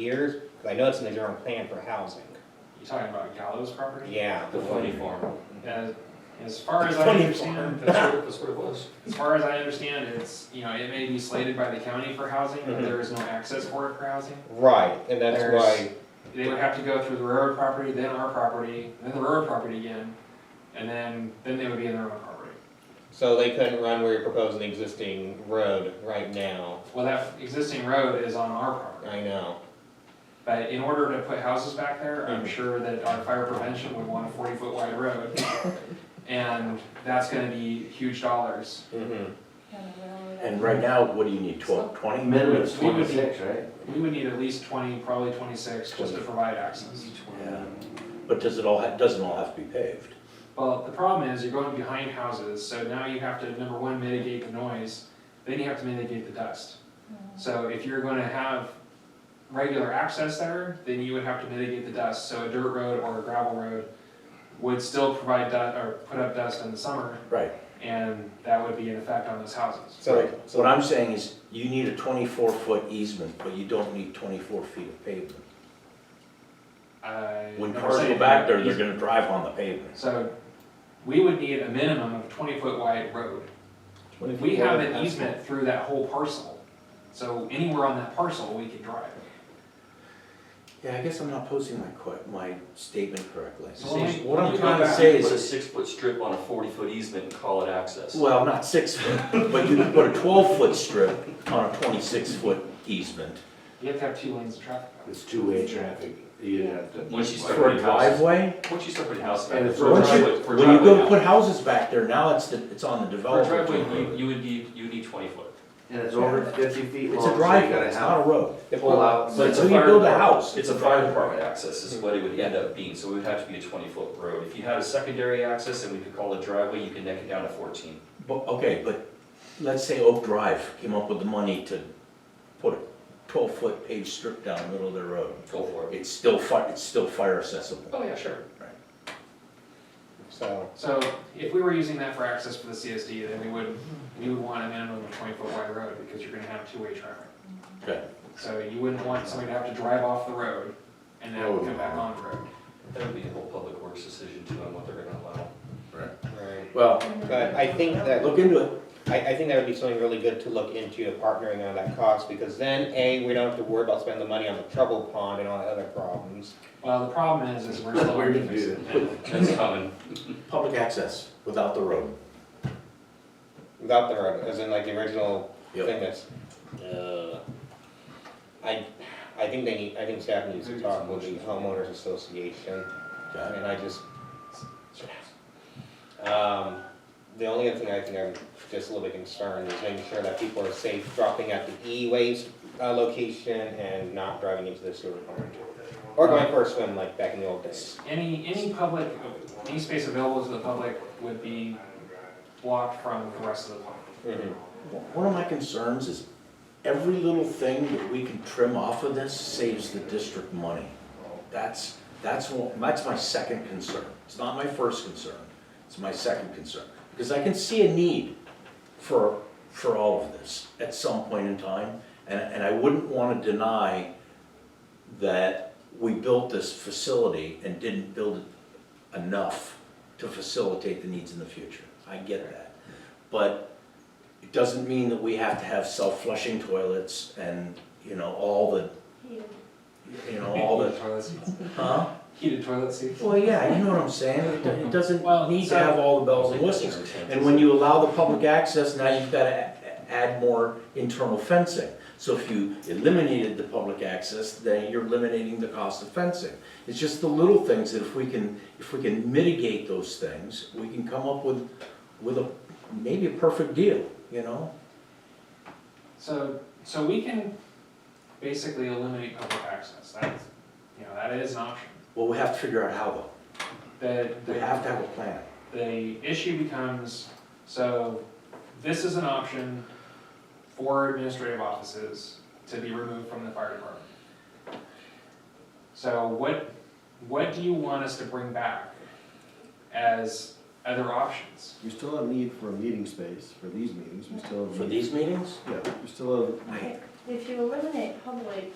years, 'cause I know it's in the general plan for housing. You talking about Gallows property? Yeah. The funny farm. As, as far as I Funny understand, farm. that's what, That's what it was. as far as I understand, it's, you know, it may be slated by the county for housing, but Mhm. there is no access for it for housing. Right, and that's There's- why, They would have to go through the railroad property, then our property, then the railroad property again, and then, then they would be in their own property. so they couldn't run where you're proposing the existing road right now. Well, that existing road is on our property, I know. but in order to put houses back there, I'm Mhm. sure that our fire prevention would want a forty foot wide road. And that's gonna be huge dollars. Mm-hmm. Mhm. And right now, what do you need, twelve, twenty? Minimum We would be- twenty-six, right? We would need at least twenty, probably twenty-six, just to provide access. Yeah, but does it all, ha- doesn't all have to be paved? Well, the problem is you're going behind houses, so now you have to, number one, mitigate the noise, then you have to mitigate the dust. So if you're gonna have regular access there, then you would have to mitigate the dust, so a dirt road or a gravel road would still provide dust, or put up dust in the summer, Right, and that would be an effect on those houses. So, right. so What I'm saying is, you need a twenty-four foot easement, but you don't need twenty-four feet of pavement. I When never cars said go back there, anything. they're gonna drive on the pavement. So, we would need a minimum of twenty foot wide road. We have an easement through that whole parcel, so anywhere on that parcel, we could drive. Yeah, I guess I'm not posing my que, my statement correctly. So when we- What I'm when we go trying to back- say Put a is, six-foot strip on a forty-foot easement and call it access. well, not six foot, but you could put a twelve foot strip on a twenty-six foot easement. You have to have two lanes of traffic. It's two-way traffic, you have to. Once you start For a putting houses, driveway? once you start putting houses back, And there, it's- for a Once you- driveway, for a When you go driveway, put houses back there, now it's, the- it's on the now- for a developer. driveway, you, you would need, you would need twenty foot. And it's over fifty feet long, It's so a you gotta driveway, it's not have. a road. Pull out. But it's a Until you fire build a department- house, It's a fire department access is what it would end up being, so it would have to be a twenty-foot road. If you had a secondary access and we could call it driveway, you can neck it down to fourteen. But, okay, but let's say Oak Drive came up with the money to put a twelve-foot paved strip down the middle of their road. Go for it. It's still fi, it's still fire accessible. Oh, yeah, sure. So, So if we were using that for access for the CSD, then we would, we would want a minimum of twenty foot wide road, because you're gonna have two-way traffic. Okay. So you wouldn't want somebody to have to drive off the road and then come back on the road. That would be a whole public works decision too on what they're gonna allow. right. Well, But I think that, look into it. I, I think that would be something really good to look into, partnering on that cost, because then, A, we don't have to worry about spending the money on the trouble pond and all the other problems. Well, the problem is, is we're still. We're gonna do that. That's common. Public access without the road. Without the road, as in like the original Yep. thing that's, uh, I, I think they need, I think staff needs to talk with the homeowners association, Okay. and I just, um, the only other thing I think I'm just a little bit concerned is making sure that people are safe dropping at the e-waste, uh, location and not driving into the sewer plant. Or going for a swim like back in the old days. Any, any public, any space available to the public would be blocked from the rest of the public. Mhm. One of my concerns is every little thing that we can trim off of this saves the district money. That's, that's, one- that's my second concern. It's not my first concern, it's my second concern. Because I can see a need for, for all of this at some point in time. And, and I wouldn't want to deny that we built this facility and didn't build it enough to facilitate the needs in the future. I get that. But it doesn't mean that we have to have self-flushing toilets and, you know, all the, you know, all Heated the, toilet seats. huh? Heated toilet seats. Well, yeah, you know what I'm saying, it do- it doesn't Well, need so- to have all the bells and whistles. And when you allow the public access, now you've gotta a- add more internal fencing. So if you eliminated the public access, then you're eliminating the cost of fencing. It's just the little things that if we can, if we can mitigate those things, we can come up with, with a, maybe a perfect deal, you know? So, so we can basically eliminate public access, that's, you know, that is an option. Well, we have to figure out how though. The, We the, have to have a plan. the issue becomes, so this is an option for administrative offices to be removed from the fire department. So what, what do you want us to bring back as other options? We still have need for a meeting space for these meetings, we still have. For these meetings? Yeah, we still have, I- If you eliminate public